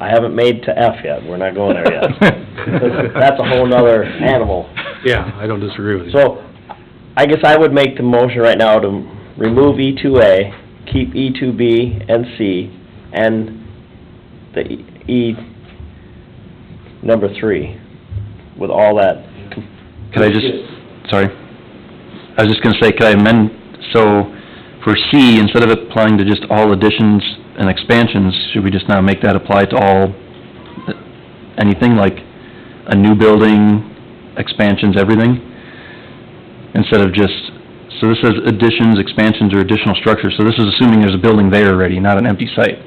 I haven't made to F yet, we're not going there yet. That's a whole nother animal. Yeah, I don't disagree with you. So, I guess I would make the motion right now to remove E two A, keep E two B and C, and the E, number three, with all that. Could I just, sorry, I was just gonna say, could I amend, so for C, instead of applying to just all additions and expansions, should we just now make that apply to all, uh, anything like a new building, expansions, everything? Instead of just, so this says additions, expansions, or additional structures, so this is assuming there's a building there already, not an empty site.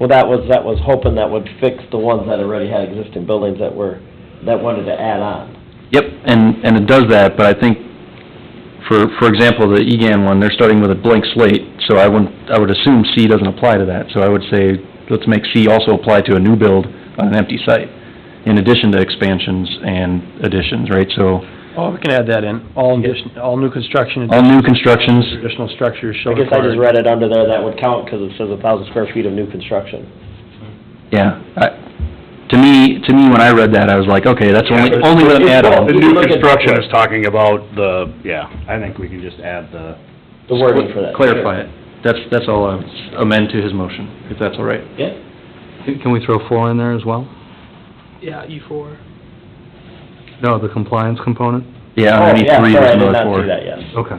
Well, that was, that was hoping that would fix the ones that already had existing buildings that were, that wanted to add on. Yep, and, and it does that, but I think, for, for example, the EGAN one, they're starting with a blank slate, so I wouldn't, I would assume C doesn't apply to that, so I would say, let's make C also apply to a new build on an empty site, in addition to expansions and additions, right? So, Oh, we can add that in, all addition, all new construction all and new constructions, additional structures shall I guess I just require. read it under there, that would count, because it says a thousand square feet of new construction. yeah, I, to me, to me, when I read that, I was like, okay, that's only, only with an add-on. The new construction is talking about the, yeah, I think we can just add the, The wording for that. Clarify it, that's, that's all I would amend to his motion, if that's all right. Yeah. Can we throw four in there as well? Yeah, E four. No, the compliance component? Yeah, Oh, underneath yeah, three, sorry, I there's did another not four. see that yet. Okay.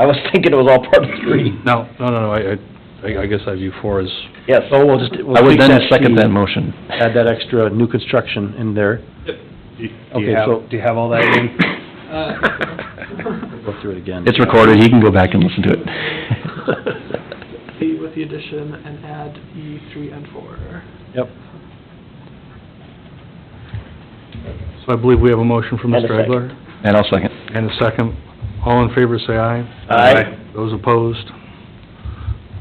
I was thinking it was all part of three. No, no, no, no, I- I, I guess I view four as, Yes, So we'll just, we'll I would take then that C, second that motion. Add that extra new construction in there. do you Okay, so- have, do you have all that in? Uh, Go through it again. It's recorded, he can go back and listen to it. C with the addition and add E three and four. Yep. so I believe we have a motion from And a Mr. Egler. And I'll second. And a second. All in favor, say aye. Aye. Those opposed?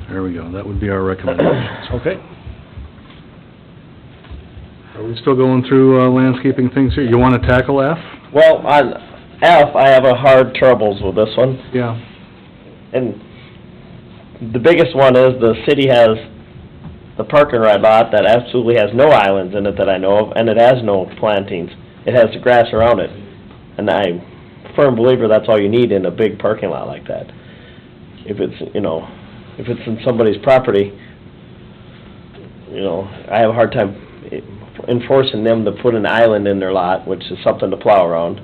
There we go, that would be our recommendations. Okay. Are we still going through uh, landscaping things here? You want to tackle F? Well, on F, I have a hard troubles with this one, Yeah. and the biggest one is the city has the park and ride lot that absolutely has no islands in it that I know of, and it has no plantings. It has the grass around it, and I'm a firm believer that's all you need in a big parking lot like that. If it's, you know, if it's in somebody's property, you know, I have a hard time enforcing them to put an island in their lot, which is something to plow around,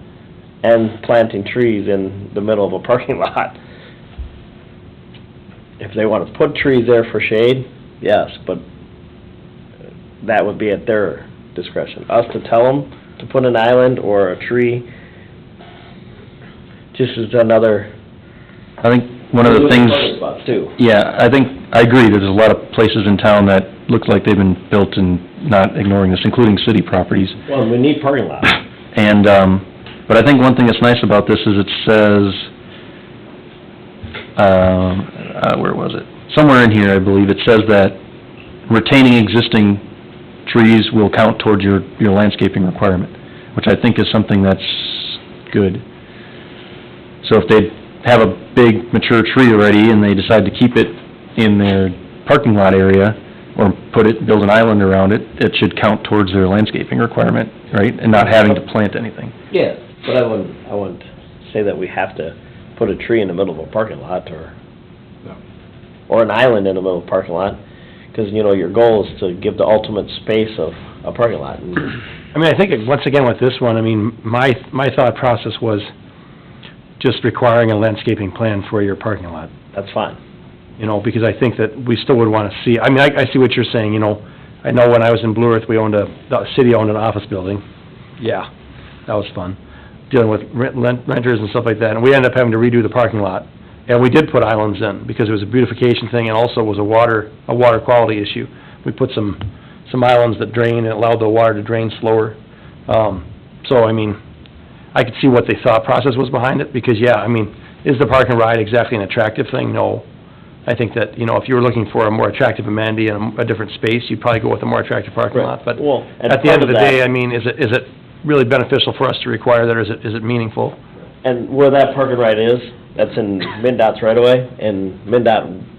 and planting trees in the middle of a parking lot. If they want to put trees there for shade, yes, but that would be at their discretion. Us to tell them to put an island or a tree, just is another... I think one of the things, Other spots, too. yeah, I think, I agree, there's a lot of places in town that look like they've been built and not ignoring this, including city properties. Well, we need parking lots. And, um, but I think one thing that's nice about this is it says, um, uh, where was it? Somewhere in here, I believe, it says that retaining existing trees will count towards your, your landscaping requirement, which I think is something that's good. So if they have a big mature tree already and they decide to keep it in their parking lot area, or put it, build an island around it, it should count towards their landscaping requirement, right? And not having to plant anything. Yeah, but I wouldn't, I wouldn't say that we have to put a tree in the middle of a parking lot or, No. or an island in the middle of a parking lot, because, you know, your goal is to give the ultimate space of a parking lot. and- I mean, I think, once again, with this one, I mean, my, my thought process was just requiring a landscaping plan for your parking lot, That's fine. you know, because I think that we still would want to see, I mean, I, I see what you're saying, you know. I know when I was in Blue Earth, we owned a, the city owned an office building. Yeah, that was fun, dealing with rent lent- renters and stuff like that, and we ended up having to redo the parking lot. And we did put islands in, because it was a beautification thing, and also was a water, a water quality issue. We put some, some islands that drain, and allowed the water to drain slower. Um, so, I mean, I could see what the thought process was behind it, because, yeah, I mean, is the park and ride exactly an attractive thing? No. I think that, you know, if you were looking for a more attractive amenity and a a different space, you'd probably go with a more attractive parking lot, but Well, and at the end of part the that- day, I mean, is it, is it really beneficial for us to require that, or is it, is it meaningful? And where that parking right is, that's in MinDOT's right away, and MinDOT